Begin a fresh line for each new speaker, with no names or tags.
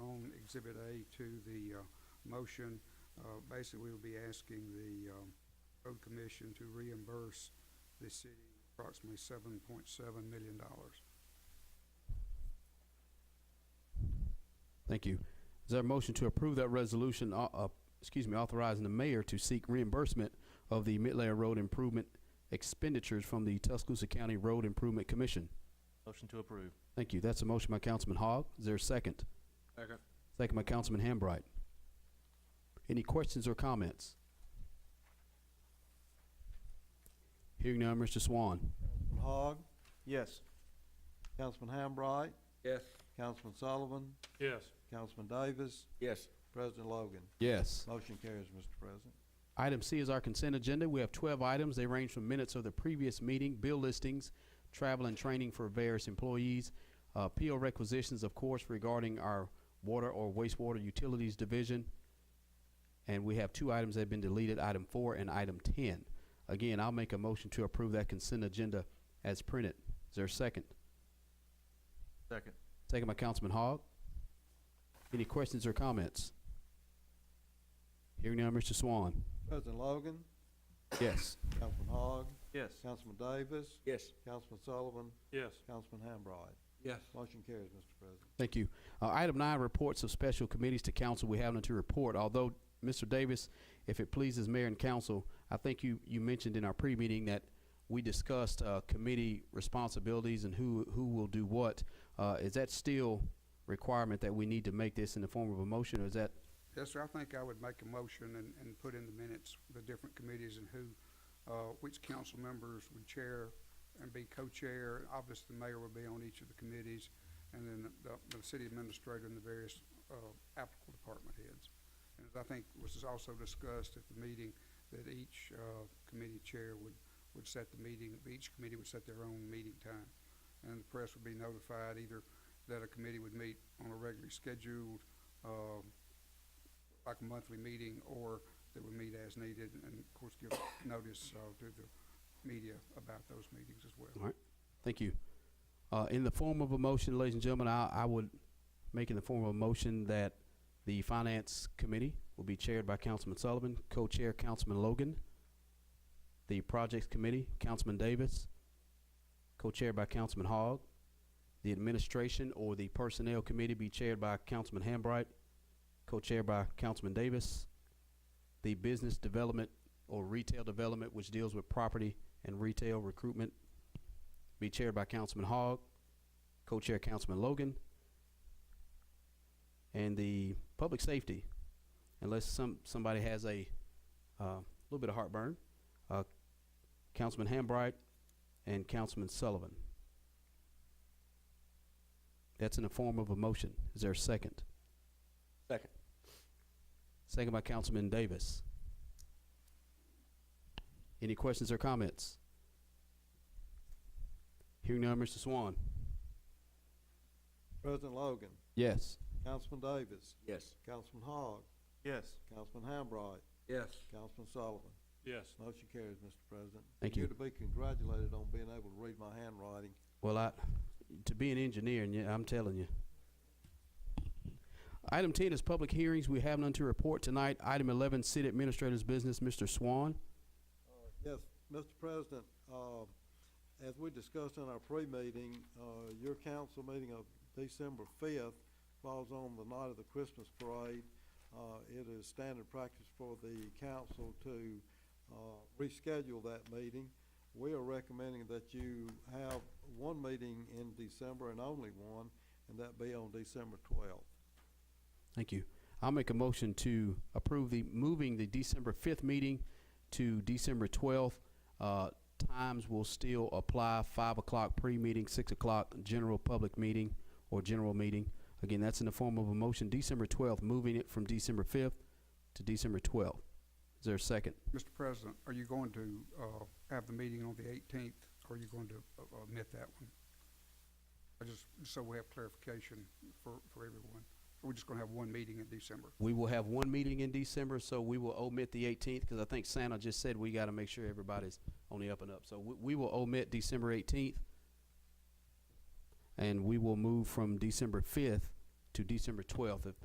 Exhibit A to the uh, motion. Uh, Basically, we'll be asking the um, Road Commission to reimburse the city approximately $7.7 million.
Thank you. Is there a motion to approve that resolution, uh, uh, excuse me, authorizing the mayor to seek reimbursement of the mid-layer road improvement expenditures from the Tuscaloosa County Road Improvement Commission?
Motion to approve.
Thank you. That's a motion by Councilman Hogg. Is there a second?
Second.
Second by Councilman Hambright. Any questions or comments? Hearing none, Mr. Swan.
Councilman Hogg,
Yes.
Councilman Hambright,
Yes.
Councilman Sullivan,
Yes.
Councilman Davis,
Yes.
President Logan.
Yes.
Motion carries, Mr. President.
Item C is our consent agenda. We have twelve items. They range from minutes of the previous meeting, bill listings, travel and training for various employees, uh, PO requisitions, of course, regarding our water or wastewater utilities division. And we have two items that have been deleted, item four and item ten. Again, I'll make a motion to approve that consent agenda as printed. Is there a second?
Second.
Second by Councilman Hogg. Any questions or comments? Hearing now, Mr. Swan.
President Logan,
Yes.
Councilman Hogg,
Yes.
Councilman Davis,
Yes.
Councilman Sullivan,
Yes.
Councilman Hambright.
Yes.
Motion carries, Mr. President.
Thank you. Uh, item nine, reports of special committees to council. We have none to report. Although, Mr. Davis, if it pleases mayor and council, I think you, you mentioned in our pre-meeting that we discussed, uh, committee responsibilities and who, who will do what. Uh, is that still requirement that we need to make this in the form of a motion or is that,
Yes, sir, I think I would make a motion and, and put in the minutes the different committees and who, uh, which council members would chair and be co-chair. Obviously, the mayor would be on each of the committees, and then the, the city administrator and the various, uh, applicable department heads. And I think was also discussed at the meeting that each, uh, committee chair would, would set the meeting, each committee would set their own meeting time. And the press would be notified either that a committee would meet on a regularly scheduled, um, like a monthly meeting or that we meet as needed and of course give notice, uh, to the media about those meetings as well.
all right? Thank you. Uh, in the form of a motion, ladies and gentlemen, I, I would make in the form of a motion that the finance committee will be chaired by Councilman Sullivan, co-chair Councilman Logan. The projects committee, Councilman Davis, co-chaired by Councilman Hogg. The administration or the personnel committee be chaired by Councilman Hambright, co-chaired by Councilman Davis. The business development or retail development, which deals with property and retail recruitment, be chaired by Councilman Hogg, co-chair Councilman Logan. And the public safety, unless some, somebody has a, uh, little bit of heartburn, uh, Councilman Hambright and Councilman Sullivan. That's in the form of a motion. Is there a second?
Second.
Second by Councilman Davis. Any questions or comments? Hearing none, Mr. Swan.
President Logan,
Yes.
Councilman Davis,
Yes.
Councilman Hogg,
Yes.
Councilman Hambright,
Yes.
Councilman Sullivan.
Yes.
Motion carries, Mr. President.
Thank you.
You're to be congratulated on being able to read my handwriting.
Well, I, to be an engineer, and yeah, I'm telling you. Item ten is public hearings. We have none to report tonight. Item eleven, city administrator's business, Mr. Swan.
Yes, Mr. President, uh, as we discussed in our pre-meeting, uh, your council meeting of December fifth falls on the night of the Christmas parade. Uh, It is standard practice for the council to uh, reschedule that meeting. We are recommending that you have one meeting in December and only one, and that be on December twelfth.
Thank you. I'll make a motion to approve the, moving the December fifth meeting to December twelfth. Uh, times will still apply, five o'clock pre-meeting, six o'clock general public meeting or general meeting. Again, that's in the form of a motion, December twelfth, moving it from December fifth to December twelfth. Is there a second?
Mr. President, are you going to, uh, have the meeting on the eighteenth, or are you going to uh, uh, omit that one? I just, so we have clarification for, for everyone. We're just gonna have one meeting in December.
We will have one meeting in December, so we will omit the eighteenth, because I think Santa just said we gotta make sure everybody's on the up and up. So we, we will omit December eighteenth. And we will move from December fifth to December twelfth, if